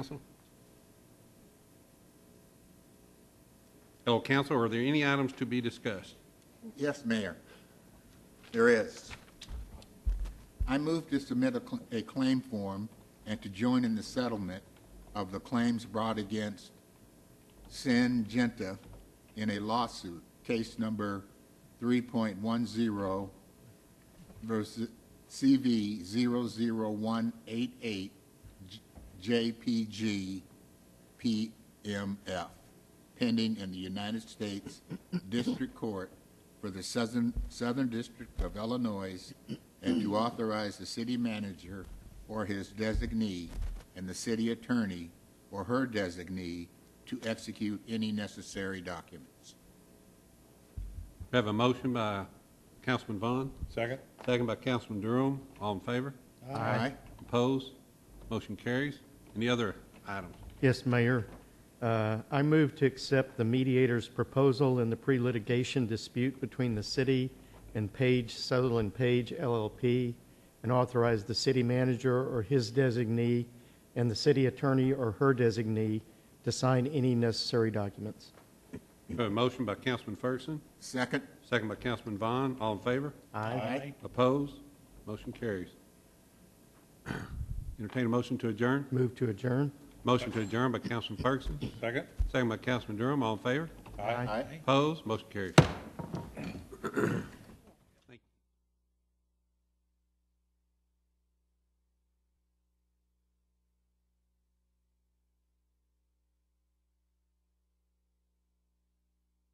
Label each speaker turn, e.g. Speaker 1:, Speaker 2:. Speaker 1: Hello, council, Oh, are there any items to be discussed?
Speaker 2: Yes, Mayor, there is. I move to submit a cl- a claim form and to join in the settlement of the claims brought against Sin Genta in a lawsuit, case number 3.10 versus CV 00188 J- JPG PMF, pending in the United States District Court for the Southern, Southern District of Illinois, and to authorize the city manager or his designee and the city attorney or her designee to execute any necessary documents.
Speaker 1: We Have a motion by Councilman Vaughn,
Speaker 3: Second?
Speaker 1: second by Councilman Durham. All in favor?
Speaker 2: Aye.
Speaker 1: Opposed? Motion carries. Any other items?
Speaker 4: Yes, Mayor. Uh, I move to accept the mediator's proposal in the pre-litigation dispute between the city and Page Sutherland Page LLP, and authorize the city manager or his designee and the city attorney or her designee to sign any necessary documents.
Speaker 1: We have A motion by Councilman Ferguson,
Speaker 2: Second?
Speaker 1: second by Councilman Vaughn. All in favor?
Speaker 2: Aye.
Speaker 1: Opposed? Motion carries. Entertain a motion to adjourn?
Speaker 4: Move to adjourn.
Speaker 1: Motion to adjourn by Councilman Ferguson,
Speaker 3: Second?
Speaker 1: second by Councilman Durham. All in favor?
Speaker 4: Aye.
Speaker 1: Opposed? Motion carries.